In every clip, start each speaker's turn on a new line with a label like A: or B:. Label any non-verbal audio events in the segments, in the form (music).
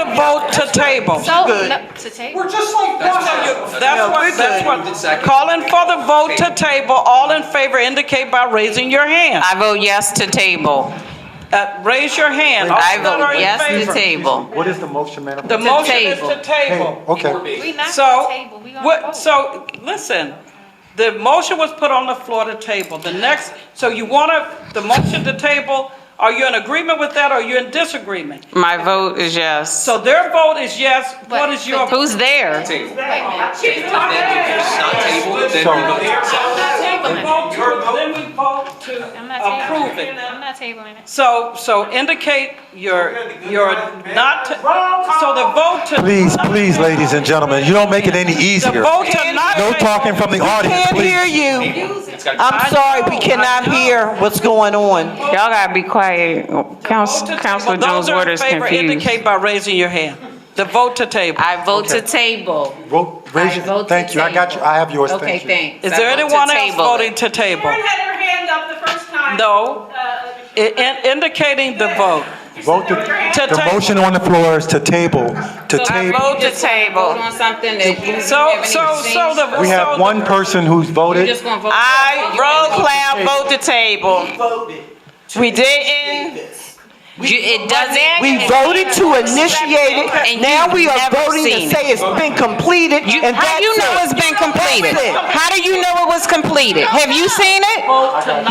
A: table to table.
B: So,
C: Good.
B: no, to table.
D: We're just like
A: That's
D: that.
A: how you, that's what, that's what,
E: Second.
A: calling for the vote to table, all in favor indicate by raising your hand.
F: I vote yes to table.
A: Uh, Raise your hand. All
F: I
A: that are
F: vote
A: in
F: yes to
A: favor.
F: table.
C: What is the motion, Madam?
A: The
C: President?
A: motion is to
F: table.
A: table.
C: Okay,
B: We not
A: So,
B: gonna table, we gonna
A: what,
B: vote.
A: so, listen, the motion was put on the floor to table. The next, so you want to, the motion to table, are you in agreement with that or are you in disagreement?
F: My vote is yes.
A: So their vote is yes, what
B: But-
A: is your?
B: but-
F: Who's there?
E: Table.
B: Wait, wait.
E: Then if it's not table, then
C: So-
E: we vote.
A: Then we vote to- then we vote to
B: I'm not tabling
A: approve
B: it.
A: it.
B: I'm not tabling it.
A: So, so indicate your, your not, to- so the vote to.
C: please, please, ladies and gentlemen, you don't make it any
A: The
C: easier.
A: vote to not.
C: No talking from the audience,
G: Can't hear
C: please.
G: you.
E: It's gotta be-
A: I
G: I'm sorry, we
A: know,
G: cannot
A: I know.
G: hear what's going on.
F: Y'all gotta be quiet.
A: Vote
F: Council,
A: to
F: Councilor
A: table.
F: Jones' order is
A: Those are in favor
F: confused.
A: indicate by raising your hand. The vote to table.
F: I vote to table.
C: Ro- Raise
F: I vote
C: your,
F: to
C: thank you, I got you, I have yours,
F: Okay,
C: thank you.
F: thanks.
A: Is
F: I
A: there
F: vote to
A: anyone else
F: table
A: voting
F: it.
A: to table?
H: Karen had her hand up the first time.
A: No.
H: Uh,
A: I- in- Indicating the vote.
H: she
C: Vote
H: said her hand-
C: to,
A: To
C: the
A: table.
C: motion on the floor is to table, to
F: I
C: table.
F: vote to table. On something that you
A: So, so, so the.
C: We
A: so
C: have
A: the-
C: one person who's voted.
F: gonna vote. I roll cloud vote to table.
D: voted.
F: We didn't. You, it doesn't.
G: We voted to initiate
F: And
G: it,
F: you've
G: now we are
F: never
G: voting
F: seen
G: to
F: it.
G: say it's been completed,
F: You,
G: and
F: how
G: that's
F: do you know it's
G: it.
F: been completed?
G: That's it.
F: How do you know it was completed? Have you seen it?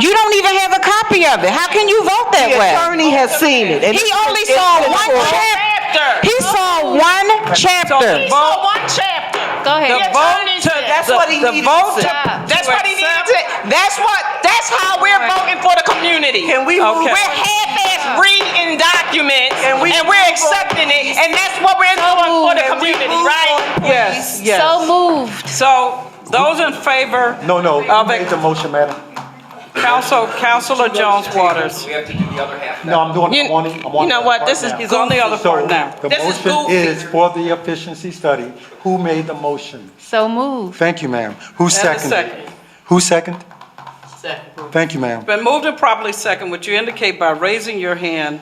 F: You don't even have a copy of it. How can you vote that
G: The
F: way?
G: attorney has seen it. and
F: He
G: it's-
F: only
G: it's
F: saw
G: been
F: one
G: approved.
F: chapter. He saw one chapter.
A: Vote-
I: one chapter.
A: The
B: Go ahead.
A: vote to.
G: That's
A: the-
G: what he
A: the
G: needed
A: vote
G: to
A: to-
B: Stop.
I: That's
A: to
I: what he needed
A: accept-
I: to, that's what, that's how we're voting for the community.
G: Can we move,
A: Okay.
I: We're half-ass reading documents
G: And
I: and
G: we-
I: we're accepting it, and that's what we're doing for the community, right?
A: Yes, yes.
B: So moved.
A: So those in favor.
C: No, no, you
A: Of
C: made
A: it,
C: the motion, madam.
A: Council, Councilor Jones Waters.
E: We have to do the other half.
C: No, I'm doing,
I: You-
C: I'm on it, I'm on
I: you know
C: that
I: what,
C: part
I: this is
C: now.
A: He's on the other
C: So
A: part now.
C: the
I: This is
C: motion
I: goofy.
C: is for the efficiency study. Who made the motion?
B: So moved.
C: Thank you, ma'am. Who seconded?
A: second.
C: Who seconded? Thank you, ma'am.
A: Been moved and properly second, which you indicate by raising your hand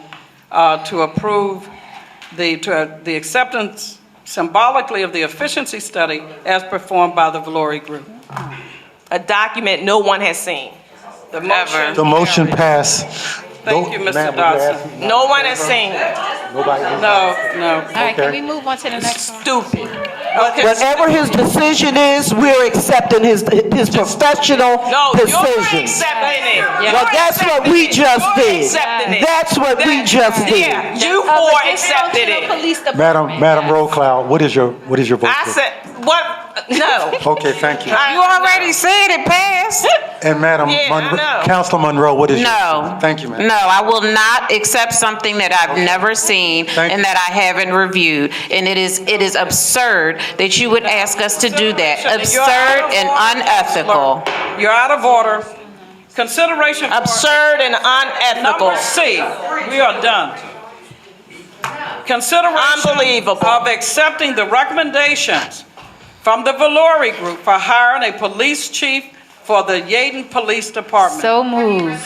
A: uh, to approve the, to, uh, the acceptance symbolically of the efficiency study as performed by the Valori Group.
I: A document no one has seen.
A: The motion,
C: The motion passed.
A: Thank you, Mr.
C: Ma'am, was
A: Dodson.
C: there asking-
I: No one has seen.
C: Nobody.
A: no, no.
B: All right, can
C: Okay.
B: we move on to the next one? Uh,
A: Stupid.
G: whatever his decision is, we're accepting his, his professional
I: No, you're
G: decision.
I: accepting it.
G: Well,
I: You're
G: that's what
I: accepting
G: we
I: it.
G: just
I: You're
G: did.
I: accepting it.
G: That's what we just did.
I: Yeah, you
B: Of the
I: four
B: Dayton
I: accepted
B: Regional
I: it.
B: Police
C: Madam,
B: Department.
C: Madam Roll Cloud, what is your, what is your vote?
I: I
C: for?
I: said, what, no.
C: Okay, thank you.
F: You already said it
I: (laughs)
F: passed.
C: And Madam,
I: Yeah, I
C: Monroe-
I: know.
C: Councilor Monroe, what is your?
F: No.
C: Thank you, ma'am.
F: No, I will not accept something that I've never seen
C: Thank
F: and
C: you.
F: that I haven't reviewed. And it is, it is absurd that you would ask us to do that.
A: You're out of
F: Absurd and
A: order,
F: unethical.
A: Counselor. You're out of order. Consideration for
I: Absurd and unethical.
A: number C. We are done. Consideration
I: Unbelievable.
A: of accepting the recommendations from the Valori Group for hiring a police chief for the Yaden Police Department.
B: So moved.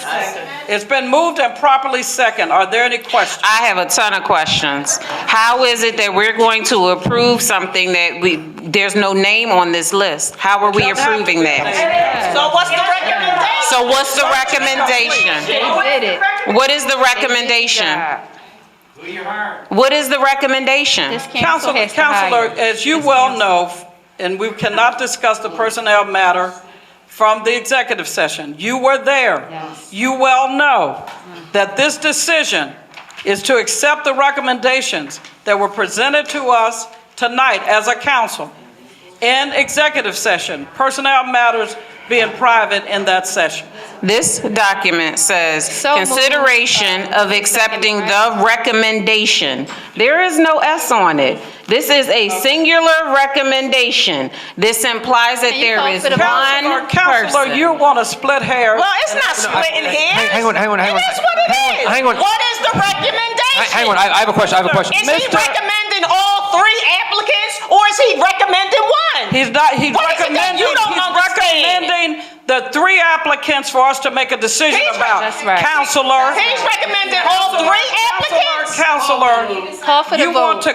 A: It's been moved and properly second. Are there any questions?
F: I have a ton of questions. How is it that we're going to approve something that we, there's no name on this list? How are we approving that?
I: So what's the recommendation?
F: So what's the recommendation?
B: They did it.
F: What is the recommendation? What is the recommendation?
B: This council
A: Council-
B: has to
A: Counselor,
B: hire.
A: as you well know, and we cannot discuss the personnel matter from the executive session, you were there.
B: Yes.
A: You well know that this decision is to accept the recommendations that were presented to us tonight as a council in executive session, personnel matters being private in that session.
F: This document says,
B: So moved.
F: consideration of accepting the recommendation. There is no S on it. This is a singular recommendation. This implies that
B: Can you
F: there
B: call
F: is
B: for the
A: Counselor,
F: one
A: Counselor,
F: person.
A: you want to split hairs.
I: Well, it's not splitting hairs.
J: hang on, hang on, hang on.
I: It is what it
J: Hang on,
I: is.
J: hang on.
I: What is the recommendation?
J: Hang on, I, I have a question, I have a question.
I: Is he recommending all three applicants or is he recommending one?
A: He's not, he's
I: What is it that
A: recommending,
I: you don't
A: he's
I: understand?
A: recommending the three applicants for us to make a decision
I: He's-
A: about.
B: That's right.
A: Counselor.
I: He's recommending all three applicants?
A: Counselor,
B: Call for the
A: you want
B: vote.
A: to